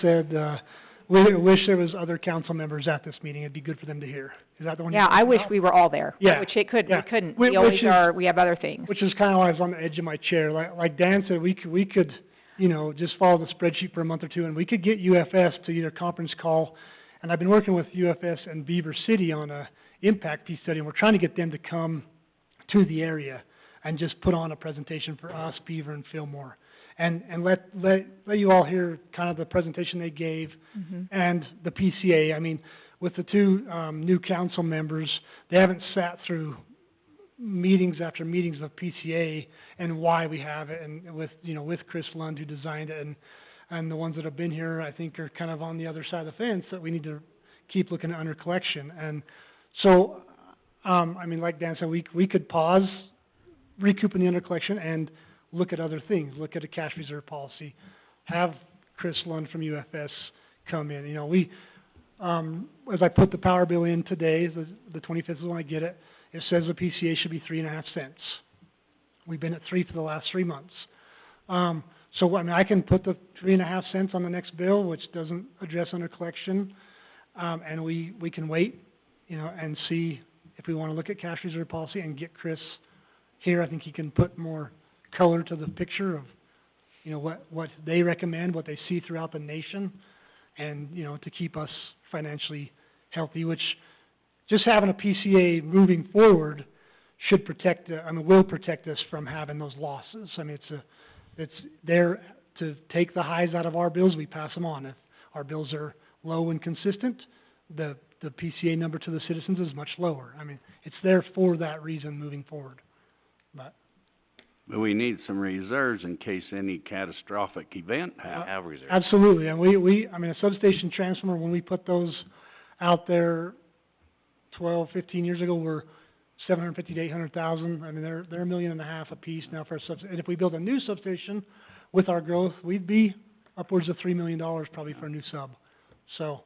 said, uh, "We wish there was other council members at this meeting. It'd be good for them to hear." Is that the one? you're Yeah, I talking wish about? we were all there. Yeah, Which it could, yeah. we couldn't. Whi- We always which is- are, we have other things. Which is kind of why I was on the edge of my chair. Like, like Dan said, we could, we could, you know, just follow the spreadsheet for a month or two, and we could get UFS to either conference call. And I've been working with UFS and Beaver City on a impact piece study, and we're trying to get them to come to the area and just put on a presentation for us, Beaver and Fillmore. And, and let, let, let you all hear kind of the presentation they gave, Mm-hmm. and the PCA, I mean, with the two, um, new council members, they haven't sat through meetings after meetings of PCA and why we have it, and with, you know, with Chris Lund who designed it, and, and the ones that have been here, I think, are kind of on the other side of the fence, that we need to keep looking at under collection, and so, um, I mean, like Dan said, we, we could pause recouping the under collection and look at other things, look at a cash reserve policy, have Chris Lund from UFS come in, you know, we, um, as I put the power bill in today, the, the twenty-fifth is when I get it, it says the PCA should be three and a half cents. We've been at three for the last three months. Um, so, I mean, I can put the three and a half cents on the next bill, which doesn't address under collection, um, and we, we can wait, you know, and see if we wanna look at cash reserve policy and get Chris here. I think he can put more color to the picture of, you know, what, what they recommend, what they see throughout the nation, and, you know, to keep us financially healthy, which just having a PCA moving forward should protect, uh, I mean, will protect us from having those losses. I mean, it's a, it's there to take the highs out of our bills, we pass them on. If our bills are low and consistent, the, the PCA number to the citizens is much lower. I mean, it's there for that reason moving forward. But, But we need some reserves in case any catastrophic event happens. Have reserves. absolutely, and we, we, I mean, a substation transformer, when we put those out there twelve, fifteen years ago, were seven hundred fifty to eight hundred thousand, I mean, they're, they're a million and a half apiece now for a subs- and if we build a new substation with our growth, we'd be upwards of three million dollars probably for a new sub. So,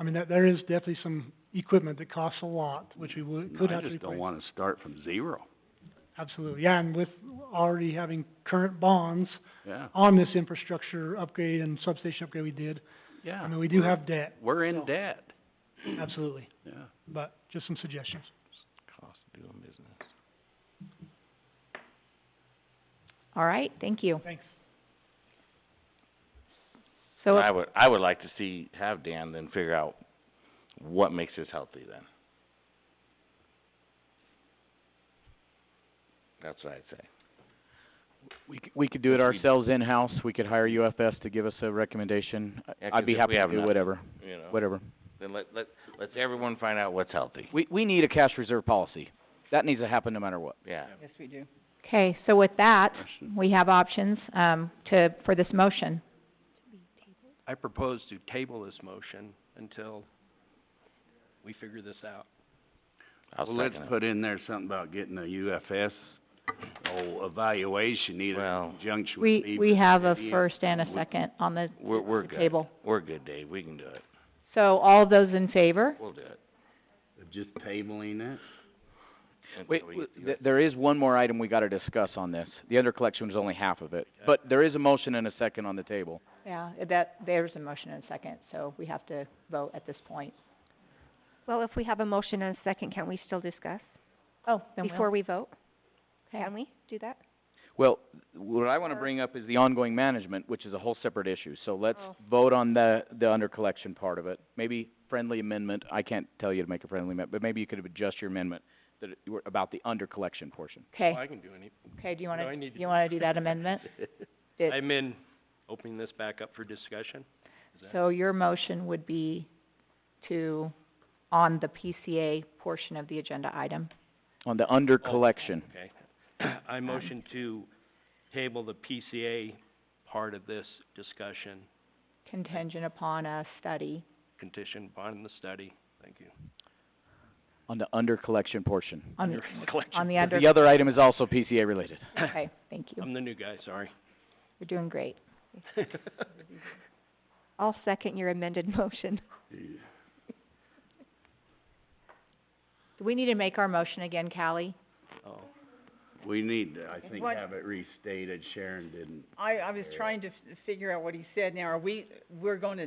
I mean, that, there is definitely some equipment that costs a lot, which we would, could I have to replace. just don't wanna start from zero, Absolutely, yeah, and with already having current bonds, yeah, on this infrastructure upgrade and substation upgrade we did. yeah. I mean, we do we're- have debt, We're so- in debt, absolutely, yeah. but just some suggestions. Cost of doing business. All right, thank you. Thanks. So, I would, I would like to see, have Dan then figure out what makes us healthy then. That's what I'd say. We c- we could do Which it we- ourselves in-house, we could hire UFS to give us a recommendation. I- Yeah, 'cause I'd be if happy we to have do nothing, whatever, You know, whatever. then let, let, let's everyone find out what's healthy. We, we need a cash reserve policy. That needs to happen no matter what. Yeah. okay, so with that, we have options, um, to, for this motion. I propose to table this motion until we figure this out. I'll Well, let's second it. put in there something about getting a UFS, oh, evaluation either Well- in conjunction with E We, Beaver we have a City and- first and a we- second on the We're, we're the good. table. We're good, Dave. We can do it. So all those in favor? We'll do it. of Just tabling it. until Wait, we w- get the- th- there is one more item we gotta discuss on this. The under collection is only half of it, but there is a motion and a second on the table. Yeah, that, there's a motion and a second, so we have to vote at this point. Well, if we have a motion and a second, can we still discuss Oh, then before we'll, we vote? okay, Can we do that? Well, what I wanna bring up is the ongoing management, which is a whole separate issue, so let's vote on the, the under collection part of it. Maybe friendly amendment, I can't tell you to make a friendly amendment, but maybe you could adjust your amendment that, it- you were- about the under collection portion. okay, I can do any, okay, do you No, wanna, I need to you wanna do that amendment? Did- I'm in opening this back up for discussion. that- So your motion would be to, on the PCA portion of the agenda item? On the Oh. under collection. Okay. I motion to table the PCA part of this discussion contingent upon a study. conditioned upon the study. Thank you. On the under collection portion. On- Under collection. On the 'Cause under, The other item is also PCA related. okay, thank you. I'm the new guy, sorry. You're doing great. I'll second your amended motion. Do we need to make our motion again, Callie? Oh. We need to, I think, have it restated. Sharon didn't. I, I was trying to f- figure out what he said. Now, are we, we're gonna